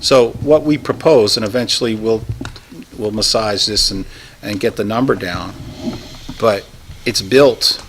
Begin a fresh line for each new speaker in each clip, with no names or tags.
So what we propose, and eventually we'll, we'll massage this and, and get the number down, but it's built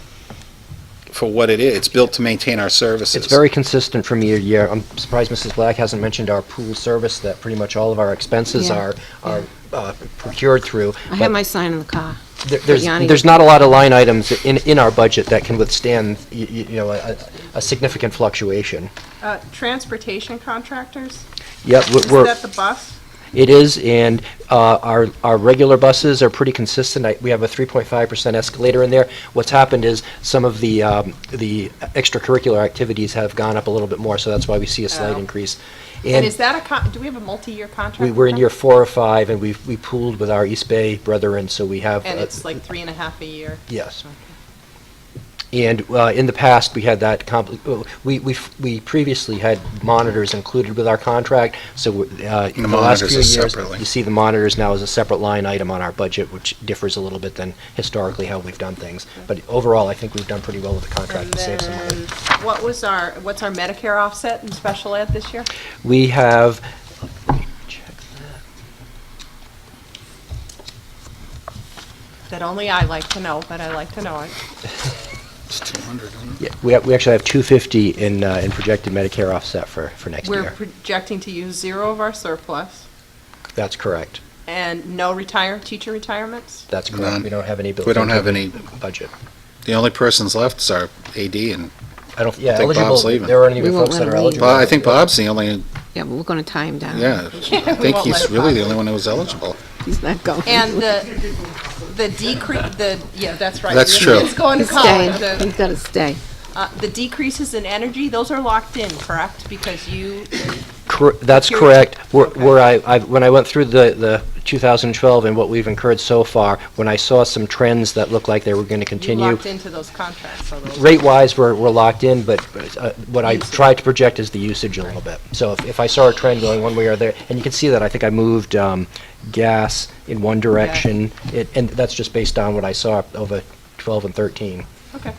for what it is. It's built to maintain our services.
It's very consistent from year to year. I'm surprised Mrs. Black hasn't mentioned our pool service, that pretty much all of our expenses
Yeah,
are, are uh, procured through.
I
but
have my sign in the car.
there- There's,
Yanni-
there's not a lot of line items in, in our budget that can withstand, you, you know, a, a significant fluctuation.
Uh, Transportation contractors?
Yep,
Is
we're- we're,
that the bus?
it is, and uh, our, our regular buses are pretty consistent. I- We have a 3.5% escalator in there. What's happened is some of the, um, the extracurricular activities have gone up a little bit more, so that's why we see a slight
Oh.
increase.
And is that a, con- do we have a multi-year contract?
We
with
were in
them?
year four or five, and we, we pooled with our East Bay brethren, so we have.
And
uh,
it's like three and a half a year?
Yes.
Okay.
And uh, in the past, we had that, compli- uh, we, we, f- we previously had monitors included with our contract, so uh, in the last
monitors
few
are
years.
separately.
You see the monitors now as a separate line item on our budget, which differs a little bit than historically how we've done things. But overall, I think we've done pretty well with the contract
And
to save some money.
then, what was our, what's our Medicare offset in special ed this year?
We have, let me check
That only I like to know, but I like to know it.
It's 200, isn't it?
yeah, we have- we actually have 250 in, uh, in projected Medicare offset for, for next
We're
year.
projecting to use zero of our surplus
That's correct.
and no retire, teacher retirements?
That's
None.
correct. We don't have any built
We don't
into
have
the
any-
Budget.
The only persons left is our AD, and,
I don't, yeah,
think Bob's
eligible,
leaving.
there aren't any
We won't
folks
let
that are
him leave.
eligible.
Bob- I think Bob's the only,
Yeah, but we're going to tie him down.
yeah, I
we
think
won't let
he's
it
really the
pass.
only one who was eligible.
He's not going.
And the, the decrease, the, yeah, that's right.
That's
Your
true.
kid's going to
He's
college.
staying.
The-
He's got to stay.
uh, The decreases in energy, those are locked in, correct? Because you,
Cor- That's
Here-
correct. Where
Okay.
where I, I- when I went through the, the 2012 and what we've incurred so far, when I saw some trends that looked like they were going to
you
continue,
locked into those contracts, so those.
rate-wise, we're, we're locked in, but uh, what I
Usage.
tried to project is the usage a little bit. So if, if I saw a trend going one way or the other, and you can see that, I think I moved um, gas in one direction, it- and that's just based on what I saw over 12 and 13.
Okay,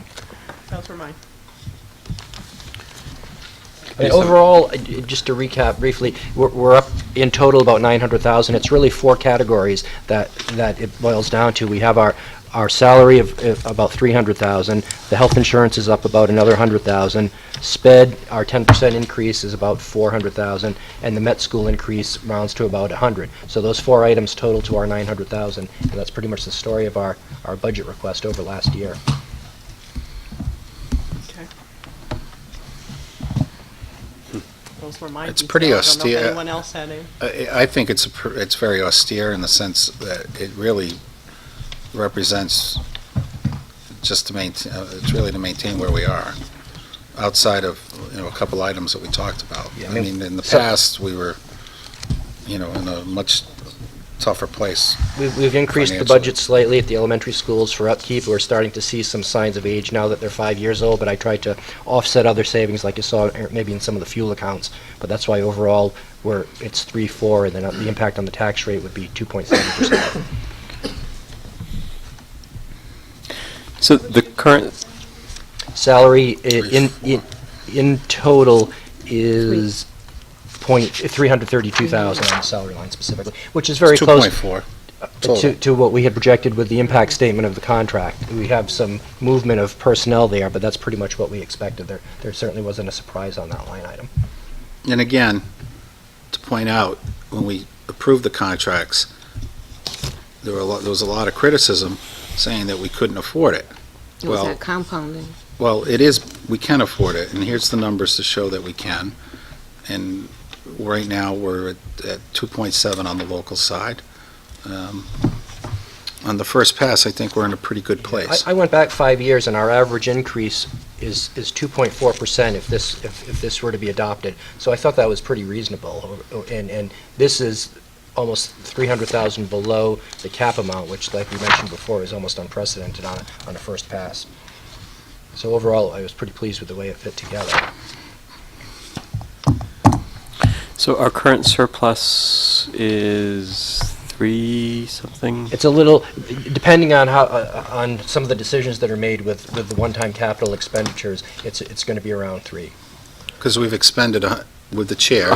those were mine.
I mean, Overall, uh, j- just to recap briefly, we're- we're up in total about 900,000. It's really four categories that, that it boils down to. We have our, our salary of of about 300,000, the health insurance is up about another 100,000, sped, our 10% increase is about 400,000, and the Met School increase rounds to about 100. So those four items total to our 900,000, and that's pretty much the story of our, our budget request over last year.
Okay. Those were mine.
It's pretty
details. I don't know if
austere.
anyone else had any.
I I think it's, a pr- it's very austere in the sense that it really represents just to maintain, uh, it's really to maintain where we are, outside of, you know, a couple items that we talked about.
Yeah, I
I
mean,
mean, in the
so-
past, we were, you know, in a much tougher place.
We've, we've increased the
Financially.
budget slightly at the elementary schools for upkeep. We're starting to see some signs of age now that they're five years old, but I tried to offset other savings like you saw er, maybe in some of the fuel accounts. But that's why overall, we're, it's three, four, and then uh, the impact on the tax rate would be 2.7%.
So the current,
Salary i-
Three,
in, in, in total is point, 332,000 on the salary line specifically, which is very
It's
close.
2.4.
to,
Total.
to what we had projected with the impact statement of the contract. We have some movement of personnel there, but that's pretty much what we expected. There, there certainly wasn't a surprise on that line item.
And again, to point out, when we approved the contracts, there were a lot, there was a lot of criticism saying that we couldn't afford it.
It was
Well-
that compounding.
Well, it is, we can afford it, and here's the numbers to show that we can. And right now, we're at- at 2.7 on the local side. Um, On the first pass, I think we're in a pretty good place.
I, I went back five years, and our average increase is, is 2.4% if this, if, if this were to be adopted. So I thought that was pretty reasonable, or- or- and, and this is almost 300,000 below the cap amount, which, like we mentioned before, is almost unprecedented on, a- on a first pass. So overall, I was pretty pleased with the way it fit together.
so our current surplus is three something?
It's a little, depending on how, uh, uh, on some of the decisions that are made with, with the one-time capital expenditures, it's, it's going to be around three.
Because we've expended, a hun- with the chair,